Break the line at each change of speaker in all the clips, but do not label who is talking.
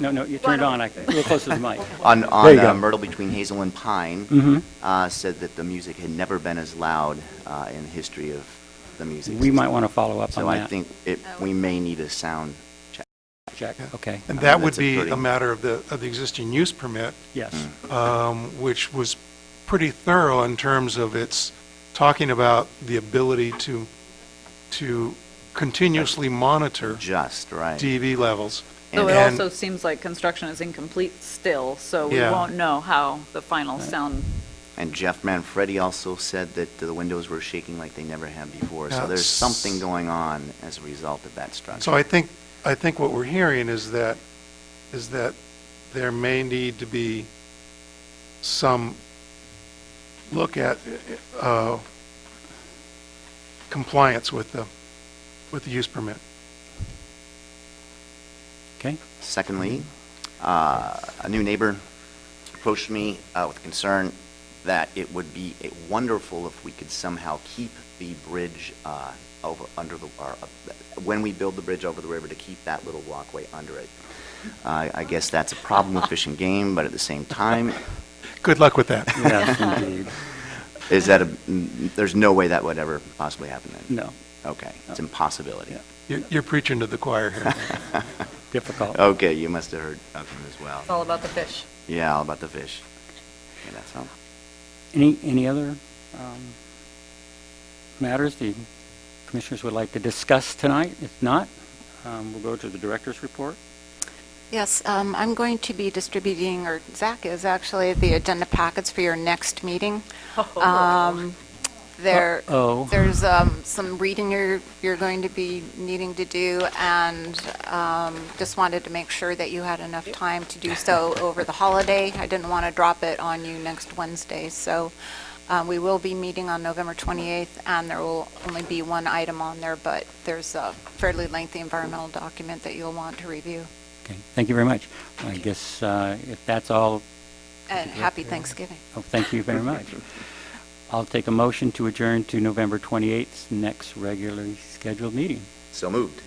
No, no, you turned on, I, a little closer to the mic.
On,
There
on
you
uh,
go.
Myrtle between Hazel and Pine,
Mhm.
uh, said that the music had never been as loud, uh, in the history of the music.
We might want to follow up on that.
So I think it, we may need a sound check.
Check, okay,
And
Uh,
that would
that's a
be
pretty-
a matter of the, of the existing use permit,
yes.
um, which was pretty thorough in terms of its talking about the ability to, to continuously monitor
Just, right.
DV levels.
So it
And-
also seems like construction is incomplete still, so we
Yeah.
won't know how the final sound,
And Jeff Manfredi also said that the windows were shaking like they never had before. So
Yeah.
there's something going on as a result of that structure.
So I think, I think what we're hearing is that, is that there may need to be some look at uh, compliance with the, with the use permit.
Okay,
Secondly, uh, a new neighbor approached me uh, with concern that it would be uh, wonderful if we could somehow keep the bridge uh, over, under the, or, uh, when we build the bridge over the river, to keep that little walkway under it. I I guess that's a problem with Fish and Game, but at the same time,
Good luck with that.
yes, indeed,
is that, a- mm, there's no way that would ever possibly happen then?
no,
Okay, it's impossibility.
Yeah.
You're you're preaching to the choir here.
difficult.
Okay, you must have heard of him as
it's
well.
all about the fish.
Yeah, all about the fish. Yeah, that's all.
Any, any other um, matters the commissioners would like to discuss tonight? If not, um, we'll go to the director's report.
Yes, um, I'm going to be distributing, or Zach is actually, the agenda packets for your next meeting. Um, There,
Uh-oh.
there's um, some reading you're, you're going to be needing to do, and um, just wanted to make sure that you had enough time to do so over the holiday. I didn't want to drop it on you next Wednesday, so um, we will be meeting on November 28th, and there will only be one item on there, but there's a fairly lengthy environmental document that you'll want to review.
Okay, thank you very much. I guess uh, if that's all,
And happy Thanksgiving.
oh, thank you very much. I'll take a motion to adjourn to November 28th, 's next regularly scheduled meeting.
So moved.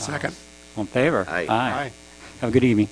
Second.
All in favor?
Aye.
Aye. Have a good evening.